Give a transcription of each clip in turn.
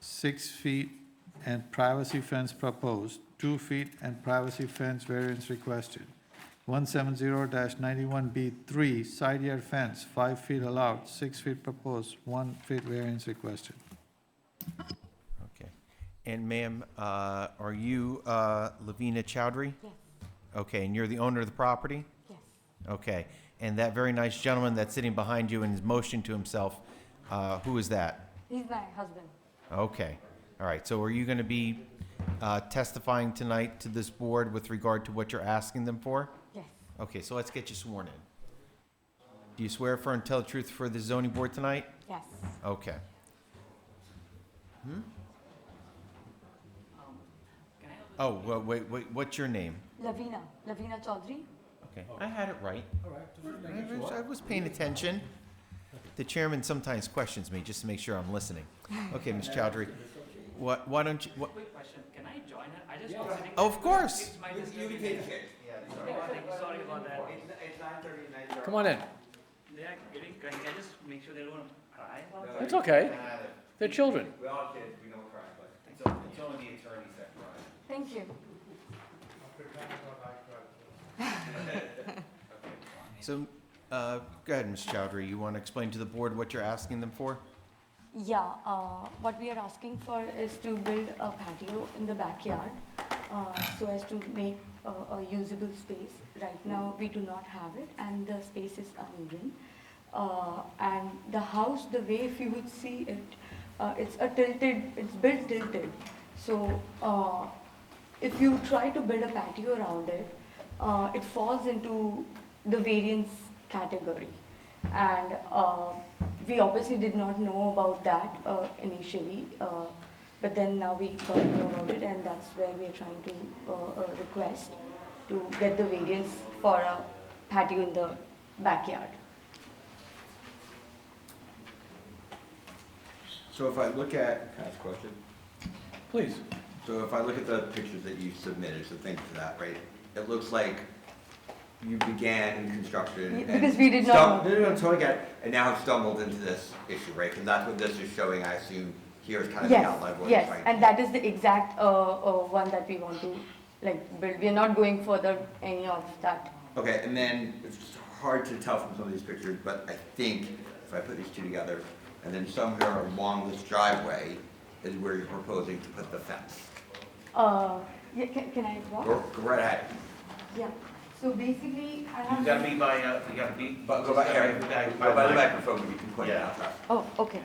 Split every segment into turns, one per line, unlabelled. six feet and privacy fence proposed, two feet and privacy fence variance requested. One seven zero ninety-one B three, side yard fence, five feet allowed, six feet proposed, one feet variance requested.
Okay. And ma'am, uh, are you uh, Lavina Chowdhury?
Yes,
Okay, and you're the owner of the property?
yes.
Okay. And that very nice gentleman that's sitting behind you and is motioning to himself, uh, who is that?
He's my husband.
Okay. All right. So are you going to be uh, testifying tonight to this board with regard to what you're asking them for?
Yes,
Okay, so let's get you sworn in. Do you swear affirm and tell the truth for the zoning board tonight?
yes.
Okay. Hmm? Oh, well, wait, wait, what's your name?
Lavina, Lavina Chaudhary.
Okay, I had it right. I was- I was paying attention. The chairman sometimes questions me just to make sure I'm listening. Okay, Ms. Chowdhury, what, why don't you, what, oh,
Quick question, can I join it? I just was
Oh.
sitting.
of course!
It's my disturbing. Sorry about that, sorry about that.
Come on in.
They are getting, can I just make sure they don't cry about it?
It's okay. They're children.
We all kids, we don't cry, but it's, it's only the attorneys that cry.
Thank you.
So, uh, go ahead, Ms. Chowdhury, you want to explain to the board what you're asking them for?
Yeah, uh, what we are asking for is to build a patio in the backyard uh, so as to make a, a usable space. Right now, we do not have it, and the space is uneven. Uh, and the house, the way if you would see it, uh, it's a tilted, it's built tilted. So uh, if you try to build a patio around it, uh, it falls into the variance category. And uh, we obviously did not know about that uh, initially, uh, but then now we got to know about it, and that's where we are trying to uh, uh, request to get the variance for a patio in the backyard.
So if I look at, can I ask a question?
Please.
So if I look at the pictures that you submitted, so thank you for that, right? It looks like you began construction
Yeah,
and.
because we did not
stum-
know.
No, no, no, totally get it, and now have stumbled into this issue, right? Because that's what this is showing, I assume, here is kind of the
Yes,
outline of what you're
yes,
trying.
and that is the exact uh, uh, one that we want to like build. We are not going further any of that.
Okay, and then it's hard to tell from some of these pictures, but I think if I put these two together, and then somewhere along this driveway is where you're proposing to put the fence.
Uh, yeah, can, can I walk?
Go go right ahead.
Yeah, so basically, I
You
have.
gotta be by, uh, you gotta be.
But go by, Eric, go by the microphone, you can point it out.
Oh, okay,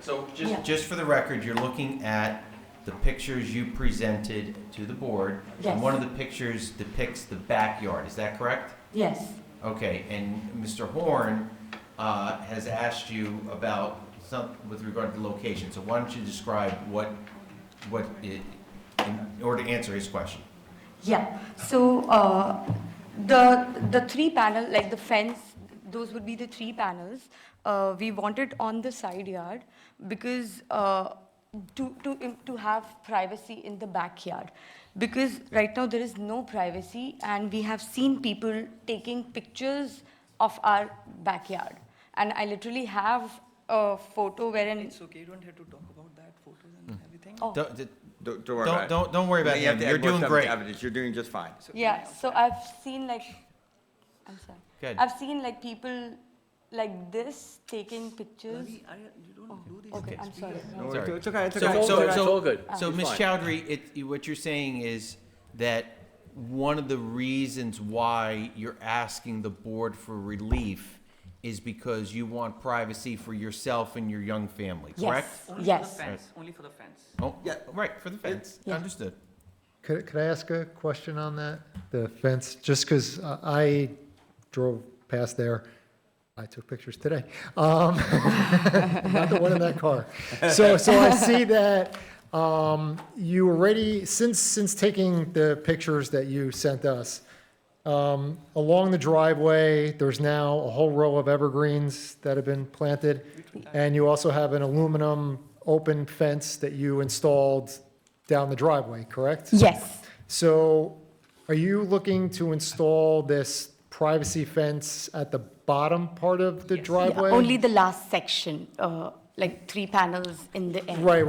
So
Yeah.
just, just for the record, you're looking at the pictures you presented to the board.
Yes.
And one of the pictures depicts the backyard, is that correct?
yes,
Okay, and Mr. Horn uh, has asked you about some, with regard to the location. So why don't you describe what, what, i- in order to answer his question?
yeah. So, uh, the, the three panel, like the fence, those would be the three panels. Uh, we want it on the side yard because, uh, to, to, im- to have privacy in the backyard. Because right now there is no privacy and we have seen people taking pictures of our backyard. And I literally have a photo wherein,
It's okay, you don't have to talk about that, photos and
Mm.
everything.
oh.
Don't, d-
Don't, don't worry about
don't,
it.
don't don't worry about
You have
him,
to add
you're
more
doing
stuff to
great.
evidence. You're doing just fine.
So
Yeah,
anyhow,
so I've seen like, I'm sorry.
Go ahead.
I've seen like people like this taking pictures.
Ravi, I- you don't do these
Oh, Okay,
things,
I'm sorry.
please.
Don't worry,
Sorry.
Oh, It's okay, it's
So-
okay.
all
so-
good, it's
so-
all good.
So,
It's
Ms.
fine.
Chowdhury, it, you- what you're saying is that one of the reasons why you're asking the board for relief is because you want privacy for yourself and your young family, correct?
Yes,
Only for the
yes.
fence, Only for the fence.
Oh,
Yeah.
right, for the fence,
Yeah.
understood.
Could, could I ask a question on that, the fence? Just because I drove past there, I took pictures today. Um, I'm Not the one in that car. So, so I see that um, you already, since, since taking the pictures that you sent us, um, along the driveway, there's now a whole row of evergreens that have been planted. And you also have an aluminum open fence that you installed down the driveway, correct?
Yes,
So are you looking to install this privacy fence at the bottom part of the
Yes. Yeah,
driveway?
only the last section, uh, like three panels in the end.
Right,